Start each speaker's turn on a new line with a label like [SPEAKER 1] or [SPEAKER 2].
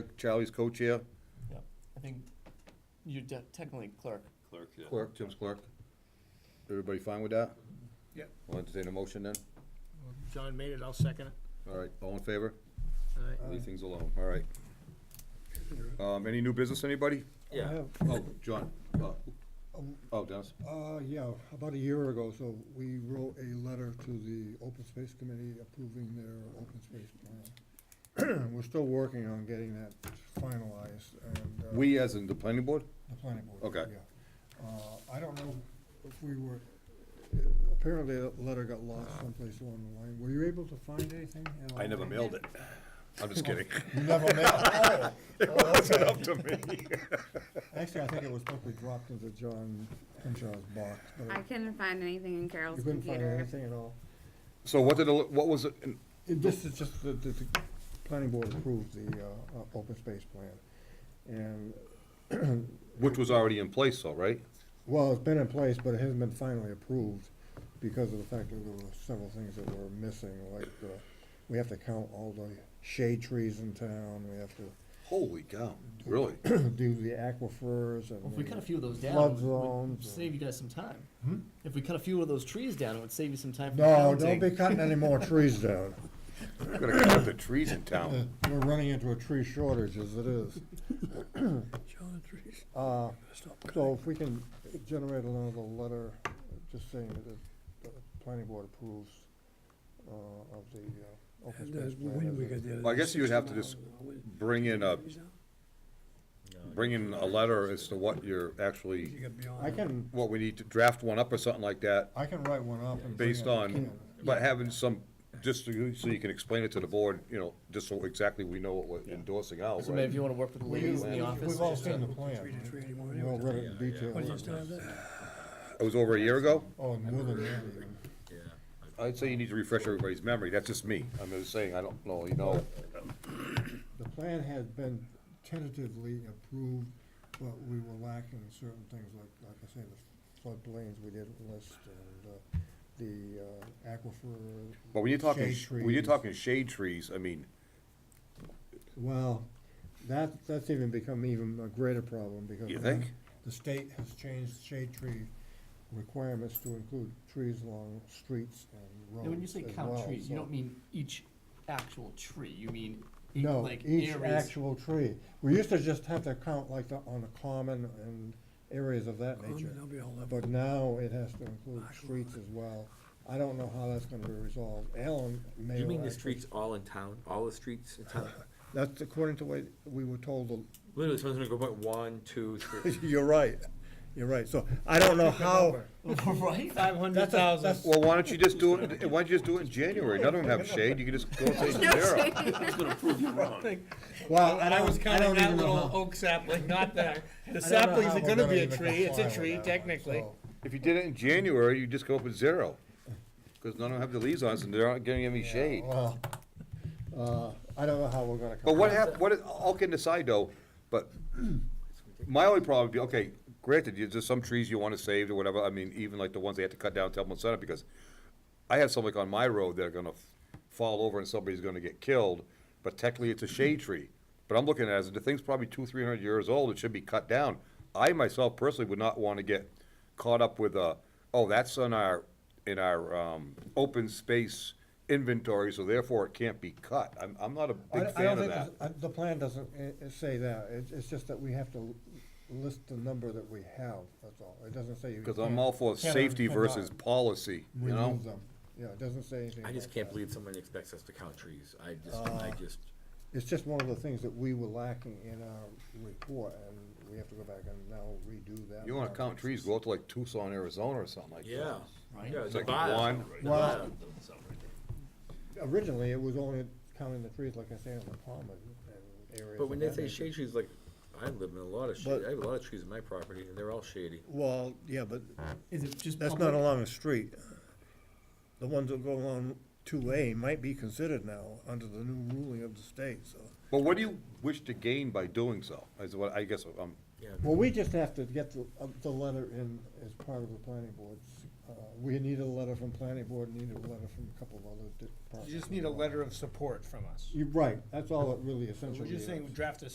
[SPEAKER 1] Charlie's co-chair,
[SPEAKER 2] I think you're de- technically clerk.
[SPEAKER 3] Clerk, yeah.
[SPEAKER 1] clerk, Jim's clerk. Everybody fine with that?
[SPEAKER 4] Yep.
[SPEAKER 1] I'll entertain a motion then.
[SPEAKER 4] John made it, I'll second it.
[SPEAKER 1] All right, all in favor?
[SPEAKER 4] All right.
[SPEAKER 1] Leave things alone, all right. Um, any new business, anybody?
[SPEAKER 5] I have,
[SPEAKER 1] Oh, John, uh, oh, Dennis,
[SPEAKER 5] uh, yeah, about a year ago, so we wrote a letter to the Open Space Committee approving their open space plan. We're still working on getting that finalized and. uh,
[SPEAKER 1] we as in the planning board?
[SPEAKER 5] The planning board.
[SPEAKER 1] Okay.
[SPEAKER 5] yeah. Uh, I don't know if we were, apparently that letter got lost someplace along the line. Were you able to find anything? at
[SPEAKER 1] I
[SPEAKER 5] all?
[SPEAKER 1] never mailed it. I'm just kidding.
[SPEAKER 5] You never mailed, oh, oh,
[SPEAKER 1] It's
[SPEAKER 5] okay.
[SPEAKER 1] up to me.
[SPEAKER 5] Actually, I think it was probably dropped into John Henshaw's box, but
[SPEAKER 6] I couldn't find anything in
[SPEAKER 5] you
[SPEAKER 6] Carol's
[SPEAKER 5] couldn't find
[SPEAKER 6] computer.
[SPEAKER 5] anything at all.
[SPEAKER 1] So what did, the- what was, it?
[SPEAKER 5] It- This is just that the, the planning board approved the, uh, uh, open space plan. And,
[SPEAKER 1] which was already in place though, right?
[SPEAKER 5] well, it's been in place, but it hasn't been finally approved because of the fact that there were several things that were missing, like, uh, we have to count all the shade trees in town, we have to
[SPEAKER 1] Holy cow, really?
[SPEAKER 5] do the aquifers and.
[SPEAKER 2] Well, if we cut a few of those down,
[SPEAKER 5] Flood
[SPEAKER 2] it would- would
[SPEAKER 5] zones.
[SPEAKER 2] save you guys some time.
[SPEAKER 4] Hmm?
[SPEAKER 2] If we cut a few of those trees down, it would save you some time. from
[SPEAKER 5] No, don't
[SPEAKER 2] counting.
[SPEAKER 5] be cutting any more trees down.
[SPEAKER 1] We're gonna cut the trees in town.
[SPEAKER 5] We're running into a tree shortage as it is. Uh, So if we can generate another letter, just saying that the the planning board approves uh, of the uh, open space plan.
[SPEAKER 1] Well, I guess you would have to just bring in a, bring in a letter as to what you're actually,
[SPEAKER 5] I can,
[SPEAKER 1] what we need to draft one up or something like that,
[SPEAKER 5] I can write one up and. bring
[SPEAKER 1] based
[SPEAKER 5] it.
[SPEAKER 1] on, but having some, just so you so you can explain it to the board, you know, just so exactly we know what we're endorsing out,
[SPEAKER 2] So maybe if you
[SPEAKER 1] right?
[SPEAKER 2] wanna work with the
[SPEAKER 5] We-
[SPEAKER 2] ladies in the
[SPEAKER 5] we've
[SPEAKER 2] office.
[SPEAKER 5] all
[SPEAKER 2] just to-
[SPEAKER 5] seen the plan, right? we all read it in detail.
[SPEAKER 1] It was over a year ago?
[SPEAKER 5] Oh, and more than that even.
[SPEAKER 1] I'd say you need to refresh everybody's memory, that's just me, I'm just saying, I don't know, you know,
[SPEAKER 5] The plan had been tentatively approved, but we were lacking certain things, like, like I say, the floodplains we didn't list, and uh, the uh, aquifer.
[SPEAKER 1] but when you're talking,
[SPEAKER 5] shade
[SPEAKER 1] when you're
[SPEAKER 5] trees.
[SPEAKER 1] talking shade trees, I mean,
[SPEAKER 5] Well, that, that's even become even a greater problem, because.
[SPEAKER 1] You think?
[SPEAKER 5] The state has changed shade tree requirements to include trees along streets and roads
[SPEAKER 2] Now, when you say
[SPEAKER 5] as
[SPEAKER 2] count
[SPEAKER 5] well,
[SPEAKER 2] trees, you
[SPEAKER 5] so-
[SPEAKER 2] don't mean each actual tree, you mean each,
[SPEAKER 5] No,
[SPEAKER 2] like
[SPEAKER 5] each
[SPEAKER 2] areas.
[SPEAKER 5] actual tree. We used to just have to count like the, on the common and areas of that nature. But now it has to include streets as well. I don't know how that's gonna be resolved. Alan may.
[SPEAKER 7] You mean the
[SPEAKER 5] actually-
[SPEAKER 7] streets all in town, all the streets in town?
[SPEAKER 5] That's according to what we were told. the-
[SPEAKER 7] Literally, someone's gonna go, point one, two, three.
[SPEAKER 5] You're right, you're right. So I don't know how.
[SPEAKER 2] Right?
[SPEAKER 4] Five hundred thousand.
[SPEAKER 1] well, why don't you just do it, why don't you just do it in January, none of them have shade, you can just go and say zero.
[SPEAKER 5] Well,
[SPEAKER 4] And I was counting that
[SPEAKER 5] even know
[SPEAKER 4] little
[SPEAKER 5] how-
[SPEAKER 4] oak sapling, not that. The
[SPEAKER 5] I don't know
[SPEAKER 4] saplings
[SPEAKER 5] how
[SPEAKER 4] are
[SPEAKER 5] we're
[SPEAKER 4] gonna be a
[SPEAKER 5] even
[SPEAKER 4] tree, it's
[SPEAKER 5] comply
[SPEAKER 4] a
[SPEAKER 5] with
[SPEAKER 4] tree
[SPEAKER 5] that one,
[SPEAKER 4] technically.
[SPEAKER 5] so.
[SPEAKER 1] If you did it in January, you just go up with zero, because none of them have the leaves on, so they're not getting any shade.
[SPEAKER 5] Well, uh, I don't know how we're gonna.
[SPEAKER 1] But what
[SPEAKER 5] comply.
[SPEAKER 1] hap, what, is- all can decide though, but my only problem would be, okay, granted, you- there's some trees you wanna save or whatever, I mean, even like the ones they had to cut down, Temple Center, because I have some like on my road that are gonna f- fall over and somebody's gonna get killed, but technically it's a shade tree. But I'm looking at it, as the thing's probably two, three hundred years old, it should be cut down. I myself personally would not wanna get caught up with a, oh, that's on our, in our, um, open space inventory, so therefore it can't be cut. I'm, I'm not a big
[SPEAKER 5] I- I don't
[SPEAKER 1] fan of
[SPEAKER 5] think
[SPEAKER 1] that.
[SPEAKER 5] this- I- The plan doesn't i- i- say that. It's, it's just that we have to list the number that we have, that's all. It doesn't say you.
[SPEAKER 1] Because I'm
[SPEAKER 5] can't-
[SPEAKER 1] all for
[SPEAKER 5] can or
[SPEAKER 1] safety
[SPEAKER 5] cannot
[SPEAKER 1] versus policy, you know?
[SPEAKER 5] Remove them. Yeah, it doesn't say anything.
[SPEAKER 7] I just
[SPEAKER 5] about
[SPEAKER 7] can't
[SPEAKER 5] that.
[SPEAKER 7] believe someone expects us to count trees. I just, I just,
[SPEAKER 5] It's just one of the things that we were lacking in our report, and we have to go back and now redo that.
[SPEAKER 1] You wanna
[SPEAKER 5] part.
[SPEAKER 1] count trees, go out to like Tucson, Arizona or something like that.
[SPEAKER 7] yeah.
[SPEAKER 2] Right.
[SPEAKER 7] Yeah,
[SPEAKER 1] It's like
[SPEAKER 7] Nevada.
[SPEAKER 1] one,
[SPEAKER 5] Well, originally, it was only counting the trees, like I say, on the common and areas.
[SPEAKER 7] But when
[SPEAKER 5] of
[SPEAKER 7] they
[SPEAKER 5] that
[SPEAKER 7] say
[SPEAKER 5] nature.
[SPEAKER 7] shade trees, like, I live in a lot of shade,
[SPEAKER 5] But-
[SPEAKER 7] I have a lot of trees in my property, and they're all shady.
[SPEAKER 5] Well, yeah, but
[SPEAKER 2] Is it just
[SPEAKER 5] That's not
[SPEAKER 2] public?
[SPEAKER 5] along a street. The ones that go along two A might be considered now under the new ruling of the state, so.
[SPEAKER 1] but what do you wish to gain by doing so, is what, I guess, um,
[SPEAKER 7] Yeah,
[SPEAKER 5] Well, we just have to get the, uh, the letter in as part of the planning board. Uh, we need a letter from planning board, need a letter from a couple of other departments.
[SPEAKER 4] You just need a letter of support from us.
[SPEAKER 5] You're right, that's all it really essentially
[SPEAKER 4] We're
[SPEAKER 5] is.
[SPEAKER 4] just saying, draft a